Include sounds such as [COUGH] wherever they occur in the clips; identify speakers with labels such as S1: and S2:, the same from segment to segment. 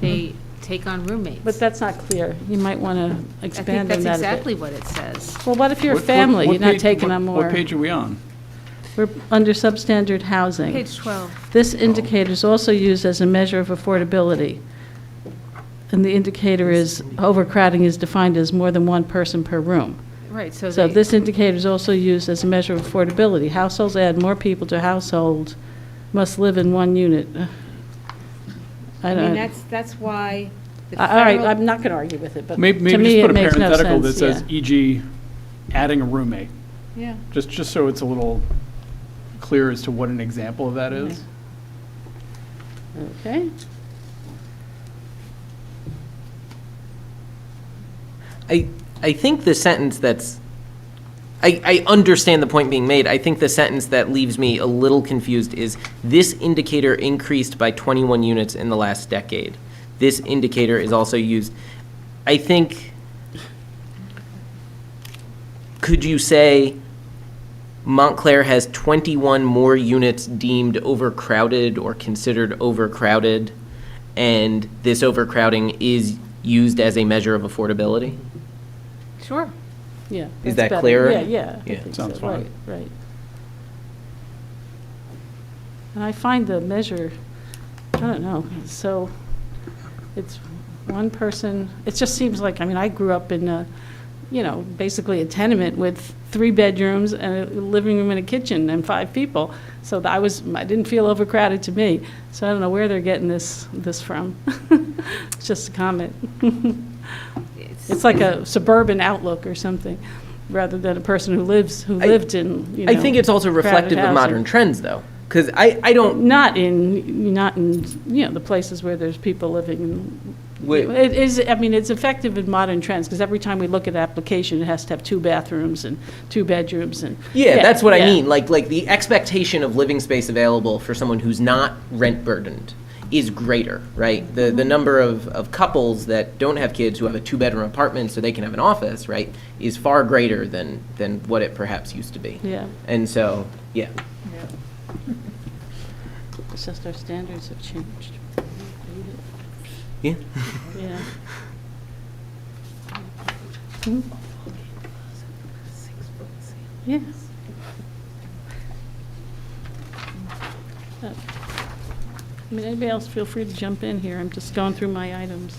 S1: they take on roommates.
S2: Mm-hmm. But that's not clear. You might want to
S1: I
S2: expand
S1: think that's
S2: on that
S1: exactly
S2: a bit.
S1: what it says.
S2: Well, what if you're a
S3: What- what-
S2: family,
S3: what
S2: you're not
S3: page-
S2: taking
S3: what-
S2: on
S3: What
S2: more?
S3: page are we on?
S2: We're under substandard housing.
S1: Page 12.
S2: This indicator is also used as a measure of affordability. And the indicator is overcrowding is defined as more than one person per room.
S1: Right, so
S2: So
S1: they-
S2: this indicator is also used as a measure of affordability. Households add more people to household must live in one unit. [SIGHS] I
S4: I mean,
S2: don't,
S4: that's, that's why the
S2: all right,
S4: federal.
S2: I'm not going to argue with it, but to me,
S3: Maybe,
S2: it
S3: maybe just put a
S2: makes no
S3: parenthetical that
S2: sense,
S3: says,
S2: yeah.
S3: e.g., adding a roommate,
S4: Yeah,
S3: just, just so it's a little clear as to what an example of that is.
S2: Okay,
S5: I, I think the sentence that's, I, I understand the point being made. I think the sentence that leaves me a little confused is, this indicator increased by 21 units in the last decade. This indicator is also used, I think, could you say Montclair has 21 more units deemed overcrowded or considered overcrowded, and this overcrowding is used as a measure of affordability?
S1: Sure.
S2: yeah.
S5: Is
S2: that's
S5: that
S2: better.
S5: clearer?
S2: Yeah, yeah. I
S5: Yeah,
S2: think
S3: sounds
S2: so,
S3: fine.
S2: Right, right. And I find the measure, I don't know, so it's one person, it just seems like, I mean, I grew up in a, you know, basically a tenement with three bedrooms and a living room and a kitchen and five people. So I was, I didn't feel overcrowded to me. So I don't know where they're getting this, this from. [LAUGHS] It's just a comment. [LAUGHS] It's like a suburban outlook or something, rather than a person who lives, who
S5: I-
S2: lived in, you know.
S5: I think it's also
S2: crowded
S5: reflective of
S2: housing.
S5: modern trends, though, because I, I don't,
S2: Not in, not in, you know, the places where there's people living in
S5: wi-
S2: It is, I mean, it's effective in modern trends, because every time we look at an application, it has to have two bathrooms and two bedrooms and.
S5: yeah, that's what I
S2: yeah.
S5: mean, like, like the expectation of living space available for someone who's not rent burdened is greater, right? The,
S2: Mm-hmm.
S5: the number of, of couples that don't have kids who have a two-bedroom apartment so they can have an office, right, is far greater than, than what it perhaps used to be.
S2: Yeah,
S5: And so, yeah.
S2: it's just our standards have changed.
S5: Yeah.
S2: Yeah. Yes. I mean, anybody else, feel free to jump in here, I'm just going through my items.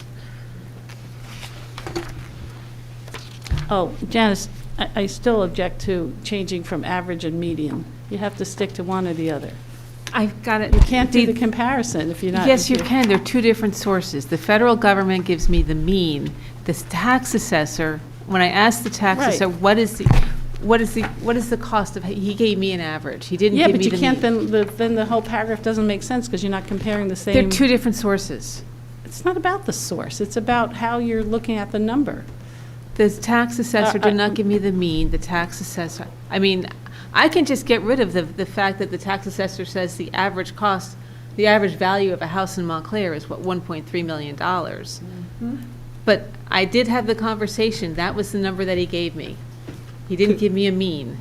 S2: Oh, Janice, I, I still object to changing from average and median. You have to stick to one or the other.
S1: I've got it.
S2: You can't do the comparison if you're not.
S1: Yes, you
S2: if you're-
S1: can. They're two different sources. The federal government gives me the mean. The s- tax assessor, when I asked the tax
S2: Right.
S1: assessor, what is the, what is the, what is the cost of, he gave me an average. He didn't
S2: Yeah,
S1: give me the
S2: but you can't,
S1: mean.
S2: then, the- then the whole paragraph doesn't make sense, because you're not comparing the same.
S1: They're two different sources.
S2: It's not about the source, it's about how you're looking at the number.
S1: The tax assessor
S2: Uh,
S1: did
S2: I-
S1: not give me the mean, the tax assessor, I mean, I can just get rid of the, the fact that the tax assessor says the average cost, the average value of a house in Montclair is what, one point three million dollars.
S2: Mm-hmm.
S1: But I did have the conversation, that was the number that he gave me. He didn't give me a mean.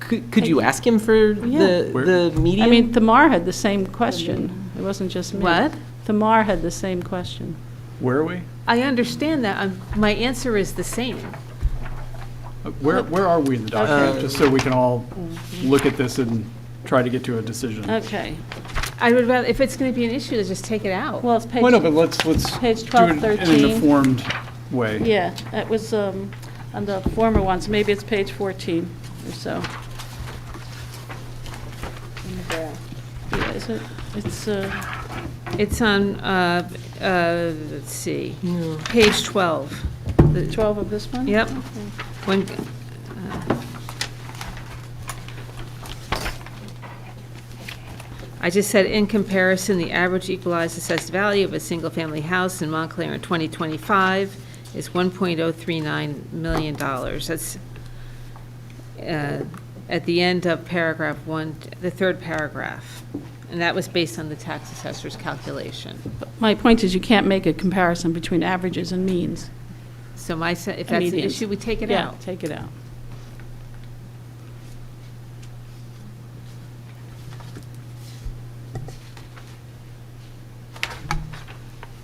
S5: Could, could you ask him for
S3: Where-
S5: the, the median?
S2: I mean, Thamar had the same question, it wasn't just me.
S1: What?
S2: Thamar had the same question.
S3: Where are we?
S1: I understand that, um, my answer is the same.
S3: Uh, Where, where are we in the document? Just so we can all look at this and try to get to a decision.
S2: Mm-hmm. Okay,
S1: I would rather, if it's gonna be an issue, then just take it out.
S2: well, it's page.
S3: Well, no, but let's, let's.
S2: page
S3: do it
S2: 12,
S3: In
S2: 13.
S3: an informed way.
S2: Yeah, that was um, on the former ones, maybe it's page 14 or so. Yeah, is it, it's, uh,
S1: It's on, uh, uh, let's see, page 12. The-
S2: 12 of this one?
S1: Yep. When, uh, I just said, in comparison, the average equalized assessed value of a single-family house in Montclair in 2025 is $1.039 million. That's uh, at the end of paragraph one, the third paragraph. And that was based on the tax assessor's calculation.
S2: My point is, you can't make a comparison between averages and means.
S1: So my, se- if that's an
S2: Median.
S1: issue, we take it
S2: Yeah,
S1: out.
S2: Take it out.